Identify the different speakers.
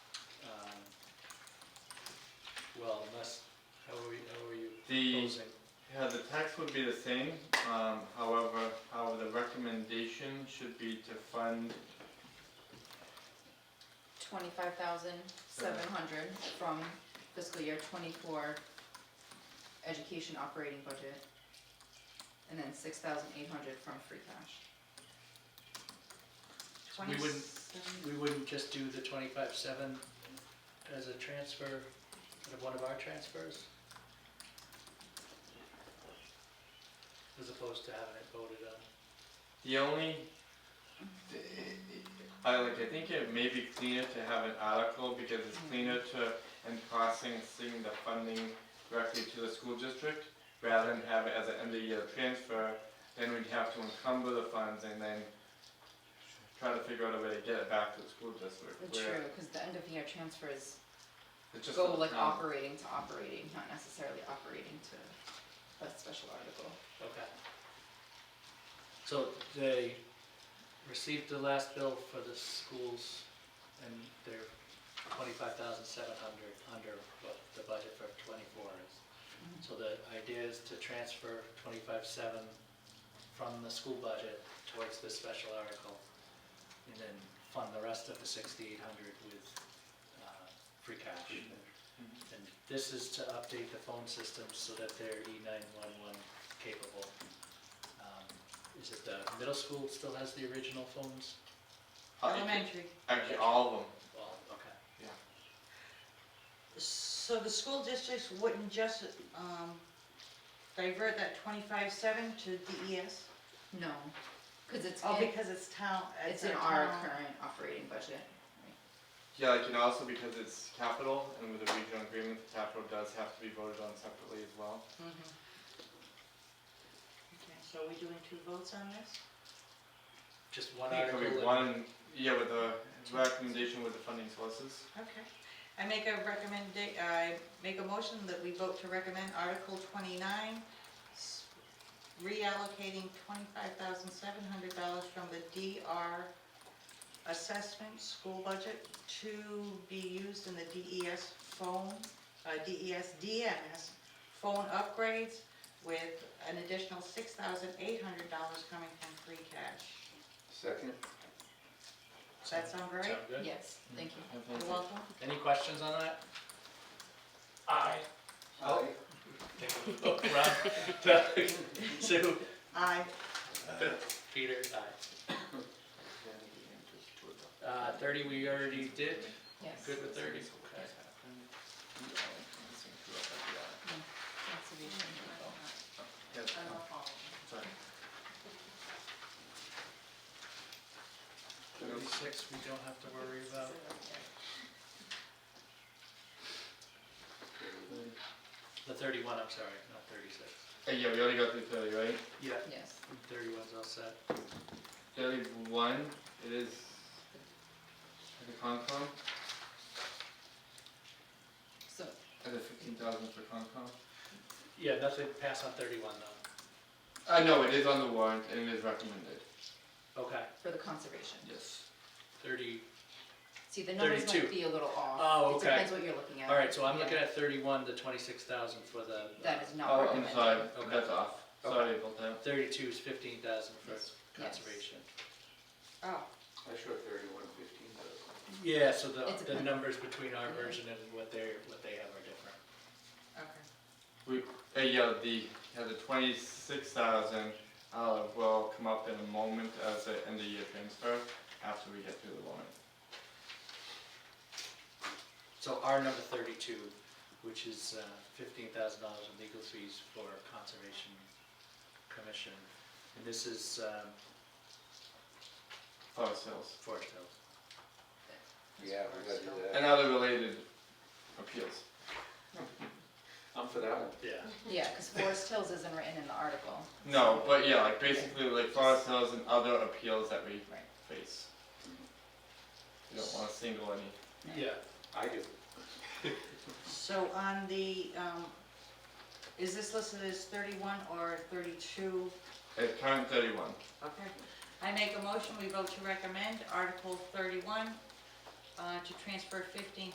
Speaker 1: Um, well, unless, how are we, how are you
Speaker 2: The,
Speaker 1: proposing?
Speaker 2: yeah, the tax would be the same, um, however, however, the recommendation should be to fund,
Speaker 3: twenty-five thousand seven hundred from fiscal year twenty-four education operating budget. And then six thousand eight hundred from free cash.
Speaker 1: So we wouldn't-
Speaker 3: 27
Speaker 1: We wouldn't just do the twenty-five seven as a transfer, out of one of our transfers? As opposed to having it voted on?
Speaker 2: the only, I like, I think it may be cleaner to have an article, because it's
Speaker 3: Mm-hmm.
Speaker 2: cleaner to, and processing the funding directly to the school district, rather than have it as an end-of-year transfer, then we'd have to encumber the funds and then try to figure out a way to get it back to the school district. where
Speaker 3: True, cause the end of year transfers
Speaker 2: It's just.
Speaker 3: go like
Speaker 2: um,
Speaker 3: operating to operating, not necessarily operating to a special article.
Speaker 1: Okay. So they received the last bill for the schools and they're twenty-five thousand seven hundred under what the budget for twenty-four is. So the idea is to transfer twenty-five seven from the school budget towards this special article and then fund the rest of the sixty-eight hundred with uh, free cash. Mm-hmm. And this is to update the phone systems so that they're E nine-one-one capable. Um, Is it the middle school still has the original phones?
Speaker 4: Uh, Elementary.
Speaker 2: Uh, Actually, all of them.
Speaker 1: Well, okay.
Speaker 4: So the school districts wouldn't just, um, divert that twenty-five seven to DES?
Speaker 3: No, cause it's
Speaker 4: Oh,
Speaker 3: in,
Speaker 4: because it's town,
Speaker 3: it's
Speaker 4: it's a
Speaker 3: in our
Speaker 4: town-
Speaker 3: current operating budget.
Speaker 2: Yeah, like, and also because it's capital, and with the regional agreement, the capital does have to be voted on separately as well.
Speaker 4: Mhm. Okay, so are we doing two votes on this?
Speaker 1: Just one
Speaker 2: I think it
Speaker 1: article.
Speaker 2: could be
Speaker 1: and-
Speaker 2: one, yeah, with the recommendation with the funding sources.
Speaker 4: Okay. I make a recommend, I make a motion that we vote to recommend Article twenty-nine, s- reallocating twenty-five thousand seven hundred dollars from the DR assessment school budget to be used in the DES phone, uh, DES DMS phone upgrades with an additional six thousand eight hundred dollars coming from free cash.
Speaker 2: Second.
Speaker 4: Does that sound right?
Speaker 1: Sound good?
Speaker 3: Yes, thank you.
Speaker 4: You're welcome.
Speaker 1: Any questions on that? Aye. Sue?
Speaker 4: Aye.
Speaker 1: Peter? Aye. Uh, thirty we already did,
Speaker 3: Yes.
Speaker 1: good with thirty? Okay.
Speaker 3: Conservation.
Speaker 1: Thirty-six we don't have to worry about. The thirty-one, I'm sorry, not thirty-six.
Speaker 2: Uh, yeah, we already got through thirty, right?
Speaker 1: Yeah.
Speaker 3: Yes,
Speaker 1: Thirty-one's all set.
Speaker 2: Thirty-one, it is at the Concom,
Speaker 3: so,
Speaker 2: at the fifteen thousand for Concom.
Speaker 1: Yeah, nothing passed on thirty-one though.
Speaker 2: Uh, no, it is on the warrant, and it is recommended.
Speaker 1: Okay,
Speaker 3: for the conservation.
Speaker 2: Yes.
Speaker 1: thirty,
Speaker 3: See, the numbers
Speaker 1: 32.
Speaker 3: might be a little off.
Speaker 1: Oh, okay.
Speaker 3: It depends what you're looking at.
Speaker 1: all right, so I'm looking at thirty-one to twenty-six thousand for the. uh,
Speaker 3: That is not
Speaker 2: Oh,
Speaker 3: recommended.
Speaker 2: I'm sorry,
Speaker 1: Okay.
Speaker 2: that's off, sorry about that.
Speaker 1: Thirty-two is fifteen thousand for
Speaker 3: Yes.
Speaker 1: conservation.
Speaker 4: Oh,
Speaker 5: I showed thirty-one fifteen thousand.
Speaker 1: Yeah, so the,
Speaker 3: It
Speaker 1: the
Speaker 3: depends.
Speaker 1: numbers between our version and what they're, what they have are different.
Speaker 2: Uh,
Speaker 4: okay.
Speaker 2: yeah, the, yeah, the twenty-six thousand, uh, will come up in a moment as an end of year transfer after we get through the warrant.
Speaker 1: So our number thirty-two, which is uh, fifteen thousand dollars in legal fees for Conservation Commission. And this is um,
Speaker 2: Fire sales
Speaker 1: Forest Hills.
Speaker 5: Yeah, we gotta do that.
Speaker 2: and other related appeals.
Speaker 5: I'm for that one.
Speaker 1: Yeah.
Speaker 3: Yeah, because Forest Hills isn't written in the article.
Speaker 2: No, but yeah, like basically like fire sales and other appeals that we
Speaker 3: Right.
Speaker 2: face.
Speaker 3: Mm-hmm.
Speaker 2: You don't wanna single any.
Speaker 1: Yeah.
Speaker 5: I do.
Speaker 4: So on the, um, is this listed as thirty-one or thirty-two?
Speaker 2: At current thirty-one,
Speaker 4: Okay. I make a motion, we vote to recommend Article thirty-one, uh, to transfer fifteen